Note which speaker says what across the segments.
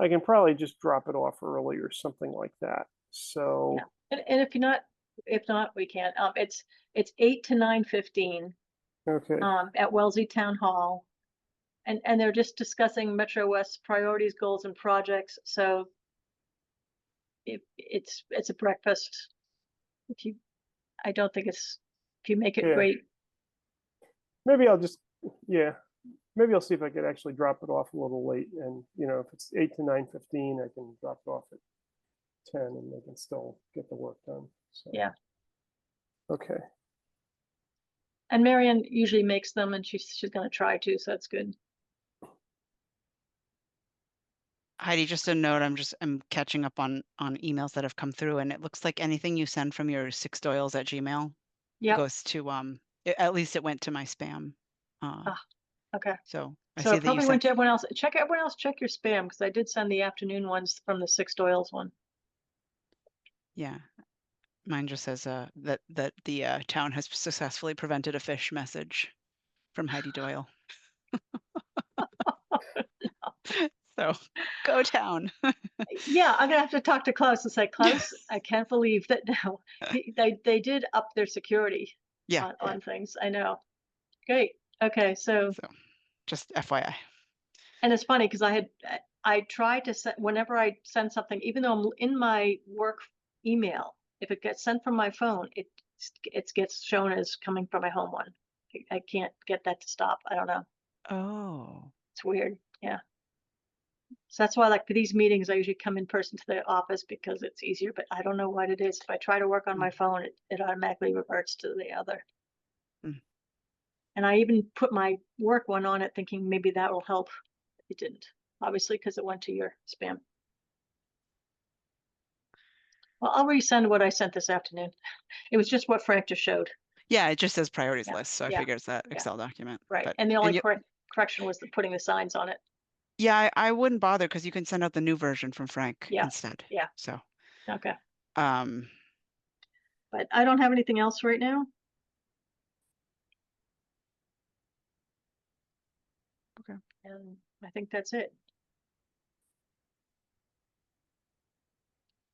Speaker 1: I can probably just drop it off early or something like that. So,
Speaker 2: Yeah. And, and if you're not, if not, we can't. Um, it's, it's eight to nine fifteen,
Speaker 1: okay,
Speaker 2: um, at Wellesley Town Hall. And, and they're just discussing Metro West priorities, goals and projects, so it, it's, it's a breakfast. If you, I don't think it's, if you make
Speaker 1: Yeah.
Speaker 2: it great,
Speaker 1: maybe I'll just, yeah, maybe I'll see if I could actually drop it off a little late and, you know, if it's eight to nine fifteen, I can drop it off at ten and they can still get the work done. So.
Speaker 2: Yeah.
Speaker 1: Okay,
Speaker 2: and Marion usually makes them and she's, she's gonna try to, so that's good.
Speaker 3: Heidi, just a note, I'm just, I'm catching up on, on emails that have come through and it looks like anything you send from your six doyles at Gmail
Speaker 2: Yep.
Speaker 3: goes to, um, a- at least it went to my spam. Uh,
Speaker 2: Ah, okay.
Speaker 3: so I
Speaker 2: So
Speaker 3: see
Speaker 2: it
Speaker 3: that you
Speaker 2: probably went
Speaker 3: sent,
Speaker 2: to everyone else, check, everyone else, check your spam, because I did send the afternoon ones from the Six Doyle's one.
Speaker 3: yeah. Mine just says, uh, that, that the, uh, town has successfully prevented a fish message from Heidi Doyle. So, go town.
Speaker 2: Yeah, I'm gonna have to talk to Klaus and say, Klaus, I can't believe that now. He- They, they did up their security
Speaker 3: Uh. Yeah,
Speaker 2: on, on things, I know. Great, okay, so,
Speaker 3: so, just FYI.
Speaker 2: and it's funny, because I had, I- I tried to send, whenever I send something, even though I'm l- in my work email, if it gets sent from my phone, it, s- it gets shown as coming from my home one. I- I can't get that to stop, I don't know,
Speaker 3: Oh,
Speaker 2: it's weird, yeah. So that's why like for these meetings, I usually come in person to the office because it's easier, but I don't know what it is. If I try to work on my phone, it, it automatically reverts to the other.
Speaker 3: Mm.
Speaker 2: And I even put my work one on it thinking maybe that will help. It didn't, obviously, because it went to your spam. Well, I'll resend what I sent this afternoon. It was just what Frank just showed,
Speaker 3: yeah, it just says priorities
Speaker 2: Yeah,
Speaker 3: list, so I
Speaker 2: yeah,
Speaker 3: figure it's that
Speaker 2: yeah.
Speaker 3: Excel document.
Speaker 2: right?
Speaker 3: but-
Speaker 2: And the only
Speaker 3: you-
Speaker 2: correc- correction was the putting the signs on it.
Speaker 3: Yeah, I, I wouldn't bother because you can send out the new version from Frank
Speaker 2: Yeah,
Speaker 3: instead.
Speaker 2: yeah.
Speaker 3: So,
Speaker 2: Okay,
Speaker 3: um,
Speaker 2: but I don't have anything else right now.
Speaker 3: Okay.
Speaker 2: And I think that's it.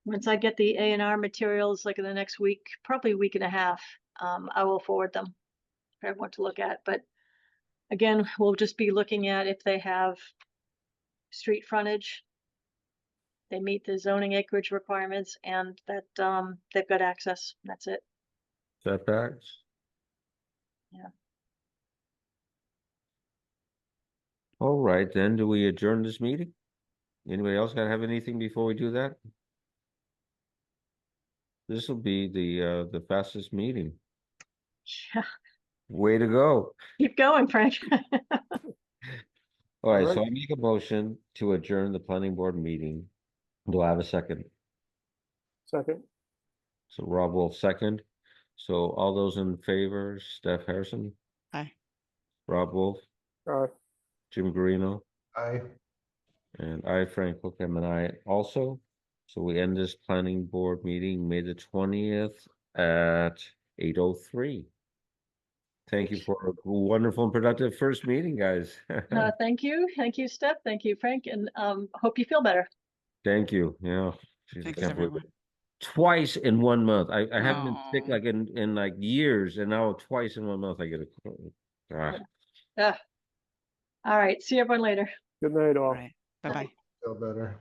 Speaker 2: Once I get the A and R materials, like in the next week, probably week and a half, um, I will forward them for everyone to look at, but again, we'll just be looking at if they have street frontage. They meet the zoning acreage requirements and that, um, they've got access, that's it.
Speaker 4: setbacks.
Speaker 2: Yeah.
Speaker 4: All right, then, do we adjourn this meeting? Anybody else gotta have anything before we do that? This will be the, uh, the fastest meeting.
Speaker 2: Yeah,
Speaker 4: Way to go.
Speaker 2: Keep going, Frank.
Speaker 4: All right, so
Speaker 1: Alright.
Speaker 4: I make a motion to adjourn the planning board meeting. Do I have a second?
Speaker 1: second,
Speaker 4: So Rob will second. So all those in favor, Steph Harrison?
Speaker 3: Aye.
Speaker 4: Rob Wolf,
Speaker 1: uh,
Speaker 4: Jim Guarino?
Speaker 5: Aye.
Speaker 4: And I, Frank Hookham, and I also. So we end this planning board meeting May the twentieth at eight oh three. Thank you for a wonderful and productive first meeting, guys.
Speaker 2: Uh, thank you, thank you, Steph, thank you, Frank, and, um, hope you feel better.
Speaker 4: Thank you, yeah. Jeez, I
Speaker 3: Thanks,
Speaker 4: can't believe it.
Speaker 3: everyone.
Speaker 4: Twice in one month. I, I haven't been sick
Speaker 3: Aw.
Speaker 4: like in, in like years and now twice in one month I get a. cold. Ah,
Speaker 2: All right, see everyone later.
Speaker 1: good night all.
Speaker 2: Oh,
Speaker 3: all right. Bye bye.
Speaker 5: Feel better.